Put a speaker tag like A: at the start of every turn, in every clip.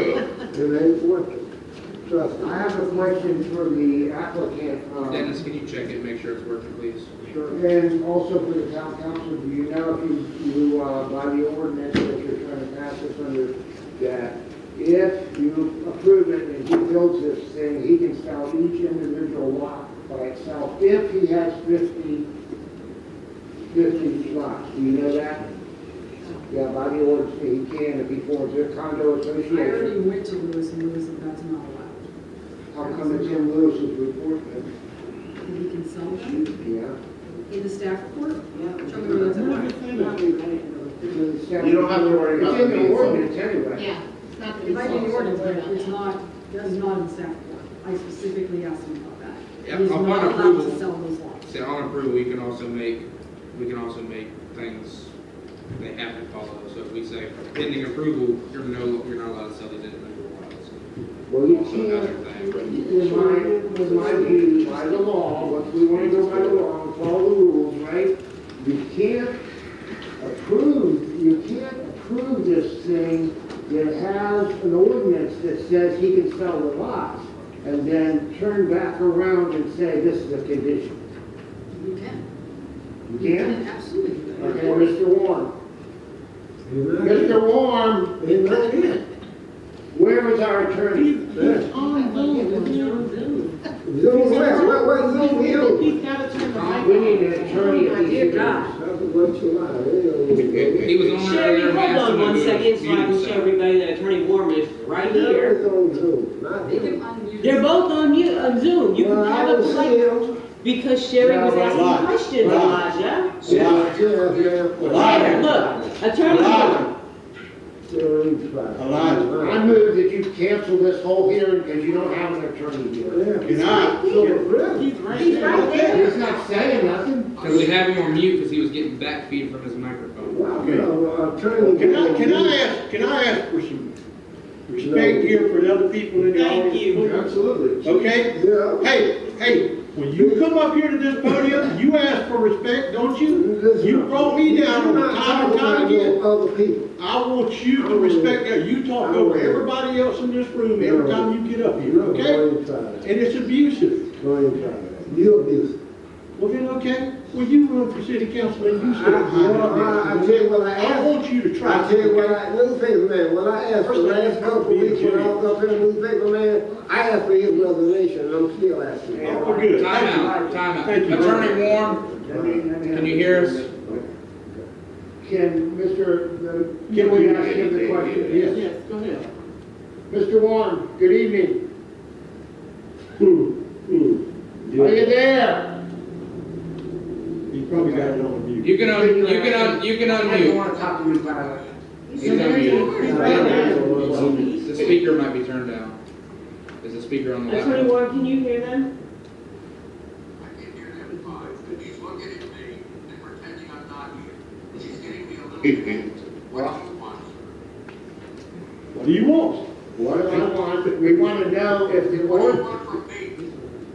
A: and they work it. Trust me.
B: I have a question for the applicant. um,
C: Dennis, can you check and make sure it's working, please?
B: And also for the town council, do you know if you, you, uh, by the ordinance that you're trying to pass this under, that if you approve it and he builds this thing, he can sell each individual lot by itself, if he has 50 50 lots, do you know that? Yeah, by the ordinance, he can if he forms a condo
D: I already
B: association.
D: went to Lewis and Lewis, and that's not allowed.
B: How come it's in Lewis's report then?
D: And you can sell them
B: Yeah.
D: in the staff report?
E: Yeah.
D: Show me where that's at.
B: You
E: You don't have to worry about
B: It's in
E: being
B: the
E: sold.
B: ordinance anyway.
E: Yeah, it's not that
D: If I
E: it's
D: do the
E: all
D: ordinance, but
E: somewhere
D: it's
E: else.
D: not, that's not in the staff report. I specifically asked him about that.
C: Yeah,
D: He's
C: upon
D: not allowed
C: approval.
D: to sell those lots.
C: Say on approval, we can also make, we can also make things, they have to follow. So if we say pending approval, you're no, you're not allowed to sell these individual lots.
B: Well, you
C: Also another thing.
B: can't, in my, in my view, by the law, what we wanna go by the law, and follow the rules, right? You can't approve, you can't approve this thing that has an ordinance that says he can sell the lots, and then turn back around and say, this is a condition.
D: You can.
B: You
D: You
B: can't?
D: can, absolutely. you
B: Okay,
D: can.
B: Mr. Warren. Mr. Warren, where is our attorney?
F: on Zoom, isn't
A: Zoom where, where, where Zoom
F: he?
A: you?
F: He's gotta turn the mic on.
B: We need an attorney
D: My
B: at
D: dear
B: these
D: God.
B: hearings.
A: That's what you lie, they
C: He was on
F: Sherry,
C: earlier.
F: hold
C: we asked
F: on
C: him
F: one
C: to
F: second,
C: mute
F: so I can show
C: himself.
F: everybody that Attorney Warren is right
A: don't.
F: here.
A: It's on Zoom, not
D: They can
A: here.
D: unmute.
F: They're both on you, on Zoom, you
A: Well,
F: can
A: I
F: have a
A: don't see
F: play,
A: him.
F: because Sherry was asking questions, Elijah.
A: Yeah, yeah, yeah.
F: There, look, Attorney Warren,
A: Sherry's fine.
B: I move that you cancel this whole hearing because you don't have an attorney here.
A: Yeah.
G: You're not.
A: So, really?
F: he's right there.
B: He's not saying nothing.
C: Cause we have him on mute because he was getting back feed from his microphone.
A: Wow, no, attorney.
G: Can I, can I ask, can I ask for some respect here for the other people in the
F: Thank
G: audience?
F: you.
A: Absolutely.
G: Okay?
A: Yeah.
G: Hey, hey, when you come up here to this podium, you ask for respect, don't you?
A: Listen.
G: You brought me down
A: You're
G: over
A: not
G: time
A: talking
G: and time
A: about
G: again.
A: no Other people.
G: I want you to respect that. You talk over everybody else in this room every time you get up here,
A: No,
G: okay?
A: Go inside.
G: And it's abusive.
A: Go inside. You abuse.
G: Well, then, okay, well, you run for city council and you
A: I,
G: sit behind
A: I, I
G: this.
A: tell you what I
G: I
A: asked.
G: want you to try.
A: I tell you what I, newspaper man, when I asked the last couple of weeks when I was up in the newspaper man, I asked for his resignation and I'm still asking.
G: Yeah, we're good.
C: Time
G: Thank you.
C: out, time out.
G: Thank you.
C: Attorney Warren,
B: Can
C: can you hear us?
B: Can Mr., the- can we ask him the question? Yes.
F: Yes, go ahead.
B: Mr. Warren, good evening.
G: Hmm,
B: Are you there?
G: You probably got it on mute.
C: You can, un- you can, un- you can unmute.
B: to talk to you about it.
C: He's unmuted. The speaker might be turned down. Is the speaker on the
F: Attorney
C: laptop?
F: Warren, can you hear them?
H: I can hear that advice, and he's looking at me and pretending I'm not here. He's getting me a little bit. What
G: What
H: do you want?
G: do you want?
B: What do I want? We want to know if the
H: What do you
B: ordinance
H: want from me?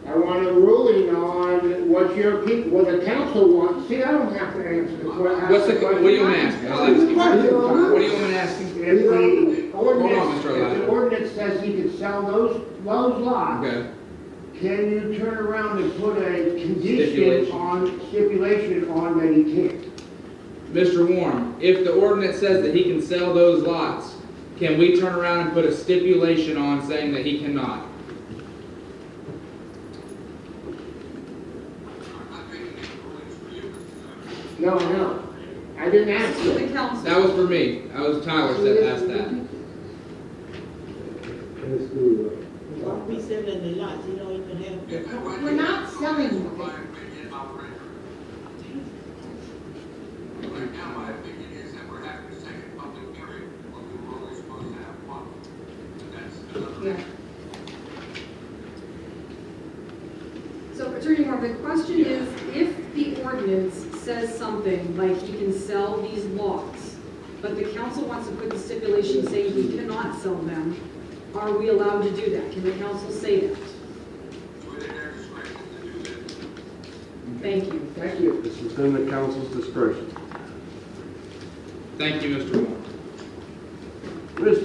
B: I want a ruling on what your people, what the council wants. See, I don't have to answer the question.
C: What's the, what do you want to ask? I'll ask you. What do you want to ask him?
B: If the
C: Hold on,
B: ordinance, if
C: Mr.
B: the
C: Elijah.
B: ordinance says he can sell those, those lots,
C: Okay,
B: can you turn around and put a condition
C: Stipulation.
B: on, stipulation on that he can't?
C: Mr. Warren, if the ordinance says that he can sell those lots, can we turn around and put a stipulation on saying that he cannot?
H: I'm not making any rulings for you.
B: No, no, I didn't ask
D: The
B: you.
D: council.
C: That was for me. That was Tyler that asked that.
A: Let's do
F: We said that the lots, you don't even have.
E: We're not selling them.
H: My opinion, I'll render. Right now, my opinion is that we're having a second public hearing, but we were only supposed to have one. But that's another.
D: Yeah. So Attorney Moore, the question is, if the ordinance says something like he can sell these lots, but the council wants to put the stipulation saying he cannot sell them, are we allowed to do that? Can the council say that?
H: It's within their discretion to do that.
D: Thank you.
B: Thank you.
I: This is within the council's discretion.
C: Thank you, Mr. Warren.